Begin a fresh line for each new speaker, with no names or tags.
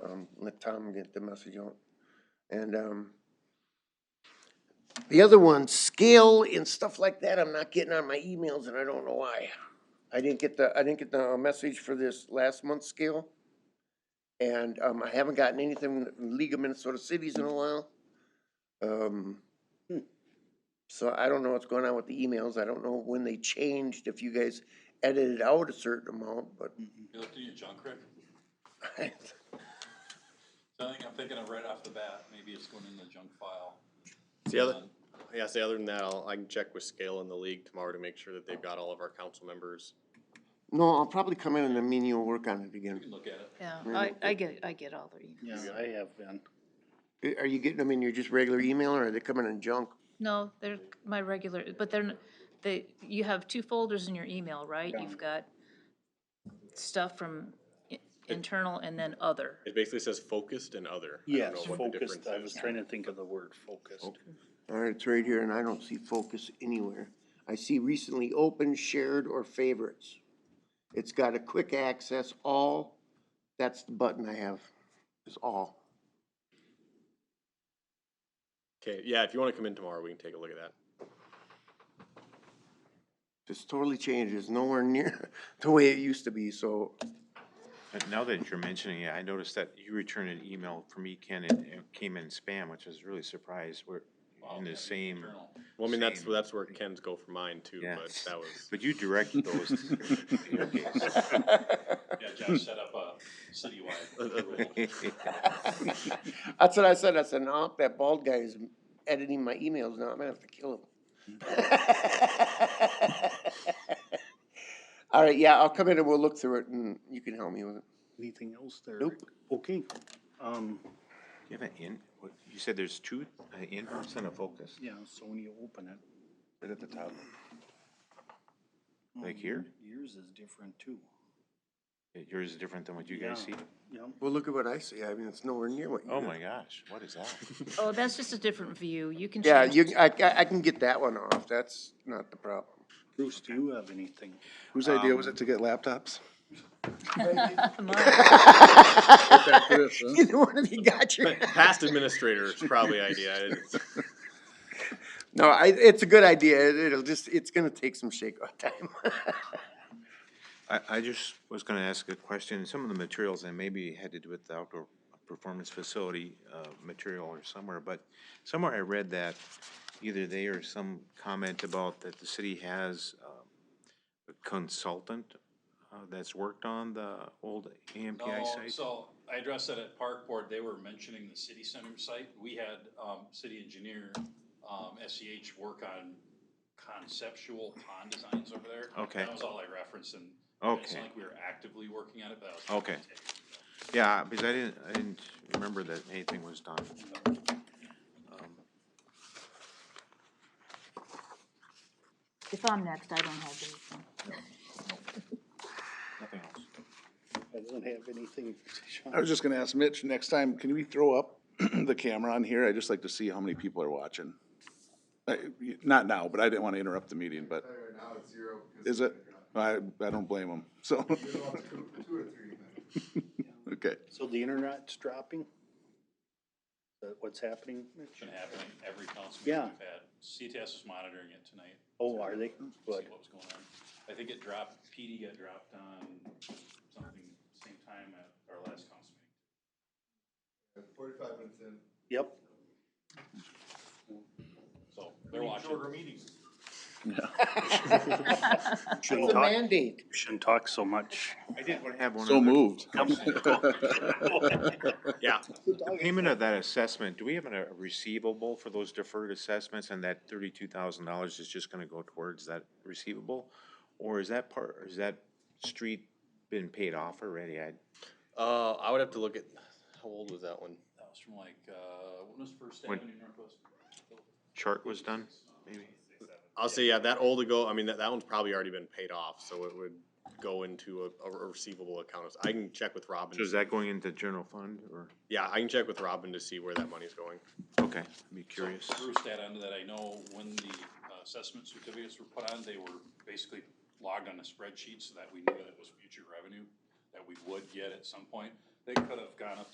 Tom, um, let Tom get the message out. And, um, the other one, scale and stuff like that, I'm not getting on my emails and I don't know why. I didn't get the, I didn't get the uh, message for this last month's scale. And, um, I haven't gotten anything from League of Minnesota Cities in a while. Um, so I don't know what's going on with the emails. I don't know when they changed, if you guys edited out a certain amount, but
You looked in your junk, Rick?
I,
Something I'm thinking of right off the bat, maybe it's going in the junk file. Um,
The other, yeah, see, other than that, I'll, I can check with Scale and the league tomorrow to make sure that they've got all of our council members.
no, I'll probably come in and then me and you will work on it
You
again.
can look at it.
Yeah,
Yeah,
I,
no,
I get, I get all the emails.
Yeah, I have been.
Eh, Are- Are you getting them in your just regular email or are they coming in junk?
No, they're my regular, but they're, n- they, you have two folders in your email, right? You've got stuff from i- internal and then other.
It basically says focused and other. I don't
Yes,
know what the
focused, I
difference
was
is.
trying to think of the word focused.
All right, Uh, it's right here and I don't see focus anywhere. I see recently opened, shared, or favorites. It's got a quick access, all, that's the button I have, is all.
Okay, yeah, if you wanna come in tomorrow, we can take a look at that.
It's totally changed. It's nowhere near the way it used to be, so
But now that you're mentioning it, I noticed that you returned an email from me, Ken, and it came in spam, which is really surprised. We're
Wow,
in
yeah,
the same,
Journal.
Well, I mean, that's,
Same.
that's where Ken's go for mine too,
Yeah.
but that was,
but you directed those. to- Okay, so-
Yeah, Josh set up a citywide rule.
that's what I said. I said, no, that bald guy is editing my emails now. I'm gonna have to kill him. All right, yeah, I'll come in and we'll look through it and you can help me with it.
Anything else there?
Nope.
Okay, um,
You have an in, what- you said there's two, an in-house and a focus,
yeah, so when you open it.
right at the top.
um,
Like here?
Yours is different too.
Yours is different than what you guys see?
Yeah. Yep,
Well, look at what I see. I mean, it's nowhere near what you.
Oh
got.
my gosh, what is that?
Oh, that's just a different view. You can
Yeah,
change.
you, I, I- I can get that one off. That's not the problem.
Bruce, do you have anything?
Whose idea was it to get laptops?
Mine.
Neither one of you got your.
past administrator's probably idea. It's-
No, I, it's a good idea. It- It'll just, it's gonna take some shakeout time.
I, I just was gonna ask a question, some of the materials, and maybe it had to do with the outdoor performance facility, uh, material or somewhere, but somewhere I read that either they or some comment about that the city has, um, a consultant, uh, that's worked on the old AMPI
No,
site.
so I addressed that at park board, they were mentioning the city center site. We had, um, city engineer, um, SEH work on conceptual pond designs over there.
Okay.
That was all I referenced and it's
Okay.
not like we were actively working on it, but I was.
Okay. Yeah, because I didn't, I didn't remember that anything was done.
If I'm next, I don't have anything.
Nothing else.
I don't have anything. Sean.
I was just gonna ask Mitch, next time, can we throw up the camera on here? I'd just like to see how many people are watching. Uh, y- Not now, but I didn't wanna interrupt the meeting, but. Is it? I, I don't blame them, so. Okay,
So the internet's dropping? Is that what's happening?
It's been happening every council
Yeah.
meeting we've had. CTS is monitoring it tonight.
Oh, are they?
see
Good.
what was going on. I think it dropped, PD got dropped on something same time at our last council meeting.
Yep.
So they're watching. Shorter meetings.
Shouldn't
It's a
talk,
mandate.
shouldn't talk so much.
I did want to have one.
so
other-
moved.
Yeah,
The payment of that assessment, do we have a receivable for those deferred assessments and that thirty-two thousand dollars is just gonna go towards that receivable? Or is that part, or is that street been paid off already? I,
uh, I would have to look at, how old was that one?
That was from like, uh, when was First
When-
Avenue Northwest?
chart was done, maybe?
I'll say, yeah, that old ago, I mean, that, that one's probably already been paid off, so it would go into a, a receivable account. I can check with Robin.
So is that going into general fund or,
Yeah, I can check with Robin to see where that money's going.
okay, I'd be curious.
So Bruce, that onto that, I know when the uh, assessment certificates were put on, they were basically logged on a spreadsheet so that we knew that it was future revenue that we would get at some point. They could have gone up